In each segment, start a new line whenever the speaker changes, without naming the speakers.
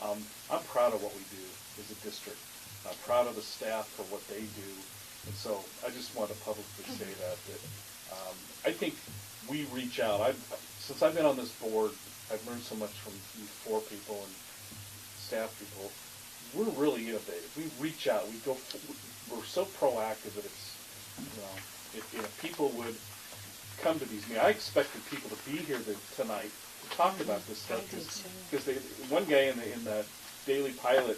Um, I'm proud of what we do as a district. I'm proud of the staff for what they do. And so I just want to publicly say
Mm-hmm.
that, that, um, I think we reach out. I've, since I've been on this board, I've learned so much from you four people and staff people. We're really innovative. We reach out. We go, f- we're so proactive that it's, you know, if, if people would come to these meetings. I expected people to be here to, tonight to talk about this stuff.
I did too.
Because they, one guy in the, in the Daily Pilot,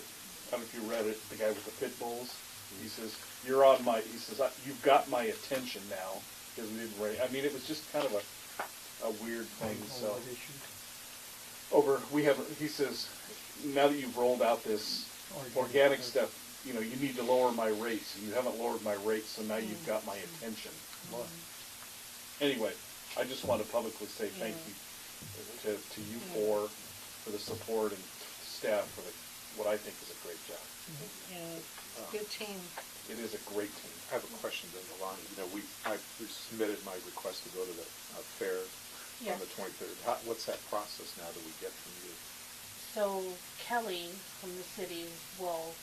I don't know if you read it, the guy with the pit bulls, he says, you're on my, he says, "I- you've got my attention now, because we didn't rate. I mean, it was just kind of a, a weird thing, so.
Oh,
Over, we have, he says, now that you've rolled out this
Organic
organic
stuff.
stuff, you know, you need to lower my rates, and you haven't lowered my rates, so now
Mm.
you've got my attention. Anyway, I just want to publicly say thank you to, to you four for the support and staff for the, what I think is a great job.
Yeah, good team.
It is a great team.
Um, I have a question then, Alani. You know, we, I submitted my request to go to the uh, fair
Yeah.
on the 23rd. How, what's that process now that we get from you?
So Kelly from the city will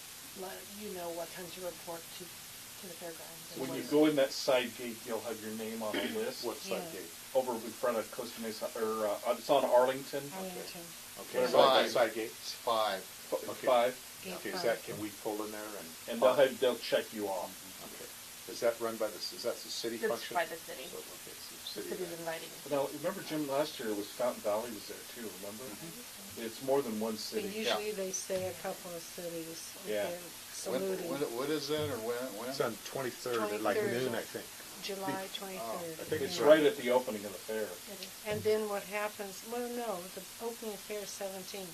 let you know what time to report to, to the fairgrounds. and
When you
what-
go in that side gate, you'll have your name on a list
What's that
Yeah.
gate?
over in front of Costa Mesa, or, uh, it's on Arlington,
Arlington,
Okay,
Whatever
so that
that
side gate?
It's five.
f-
Okay.
five,
Gate
Okay, is
five.
that, can we pull in there and?
and they'll have, they'll check you on.
Okay. Is that run by the, is that the city
It's
function?
by the city.
So, okay, it's
The
the city.
city's
event.
inviting.
Now, remember Jim, last year was Fountain Valley was there too, remember?
Mm-hmm.
It's more than one
But
city.
usually they say a couple of cities, like
Yeah.
they're
When,
saluting,
when, what is that, or when, when?
It's on 23rd at like
23rd.
noon, I think.
July
I think
twenty-third.
It's right at the opening of the fair.
And then what happens, well, no, the opening fair is seventeen.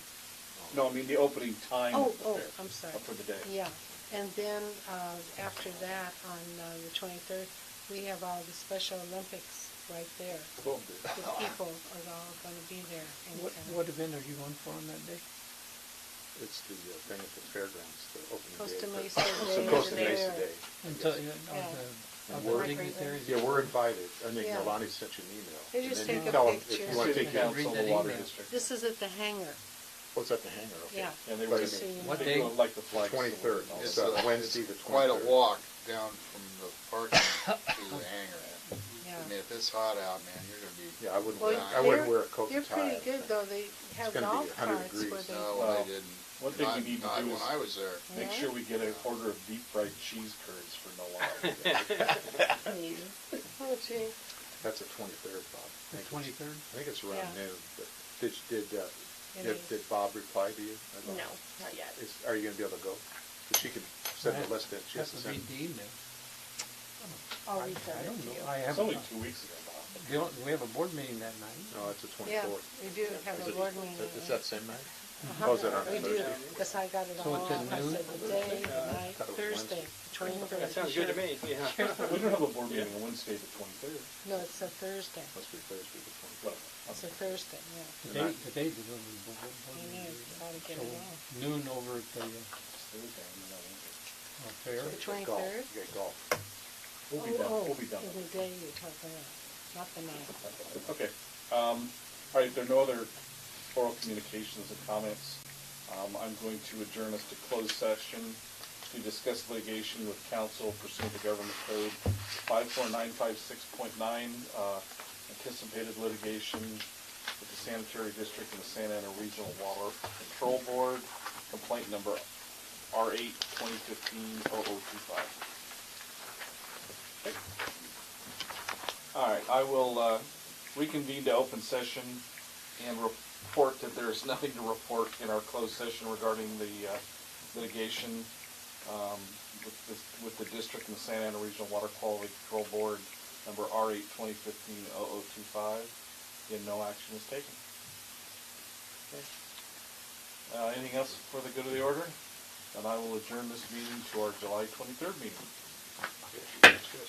No, I mean the opening time
Oh,
of the
oh,
fair.
I'm sorry.
For the day.
Yeah, and then, uh, after that, on, uh, the twenty-third, we have all the Special Olympics right there.
Cool.
The people are all gonna be there. and,
What,
uh,
what event are you on for on that day?
It's the uh, thing at the fairgrounds, the opening day.
Costa
of the-
Mesa
It's
Day
the Costa
over
Mesa
there.
Day.
And
Yes.
tell you, on
Yeah.
the,
And
on
we're-
the dignitaries?
Yeah, we're invited. I think
Yeah.
Alani sent you an email.
They just
And then you
take a
tell 'em
picture.
If you want to
City
take your,
Council,
that
the Water
email.
District.
This is at the hangar,
what's at the hangar, okay?
yeah.
And they
But
were,
I
Just so you
mean,
know.
What
they
day?
were like the flag. salute
23rd.
and all
It's
that.
uh,
a-
Wednesday, the
it's Quite a
23rd.
walk down from the parking to the hangar.
Yeah.
I mean, if it's hot out, man, you're gonna be.
Yeah, I wouldn't,
Well,
wear- I wouldn't
they're-
wear a coat and tie.
They're pretty good, though, they have
gonna be
golf
100
carts where
degrees.
they,
No,
Well,
I didn't.
one thing we
Not-
need to
not
do
When
is-
I was there.
Make
Yeah.
sure we get an order of deep fried cheese curds for Noel.
oh gee,
That's the 23rd, Bob.
The
I think it's-
twenty-third?
I think it's
Yeah.
around noon, but did, did, uh,
It is.
did, did Bob reply to you? I
No,
don't know.
not yet.
Is, are you gonna be able to go? 'Cause she could send the list in, she has to
That's a
send.
big email.
I'll
I-
reach
I
out
don't
to
know.
you.
I
It's
haven't,
only two weeks ago, Bob.
we don't- we have a board meeting that night.
No, it's the
Yeah,
24th.
we do have
Is
a
it-
board meeting.
is- Is that same night?
Uh-huh.
Oh, is that on a
We do,
Thursday? Uh,
because I got it
So
all
it's
on,
at
I said
noon?
the day, the night,
thought it was
Thursday, twenty-third.
That sounds good to me, yeah.
We don't have a board meeting on Wednesday, the twenty-third.
No, it's a Thursday,
Must be Thursday, the 24th.
it's a Thursday, yeah.
The
The
day,
night.
the day's the board board- board
I know,
meeting.
you gotta get
So
it on.
Noon over at the, uh, uh, fair.
The
You got golf.
23rd?
You got golf.
We'll be
Oh,
done,
oh,
we'll be done.
In the day you talk about, not the night.
Okay, um, all right, there are no other oral communications and comments. Um, I'm going to adjourn us to closed session to discuss litigation with counsel pursuant to government code five four nine five six point nine, uh, anticipated litigation with the sanitary district and the Santa Ana Regional Water Control Board, complaint number R eight twenty fifteen oh oh two five. All right, I will uh, reconvene to open session and report that there is nothing to report in our closed session regarding the uh, litigation um, with the- with the district and the Santa Ana Regional Water Quality Control Board, number R8 2015-0025, and no action is taken. Okay. Uh, Anything else for the good of the order? And I will adjourn this meeting to our July 23rd meeting.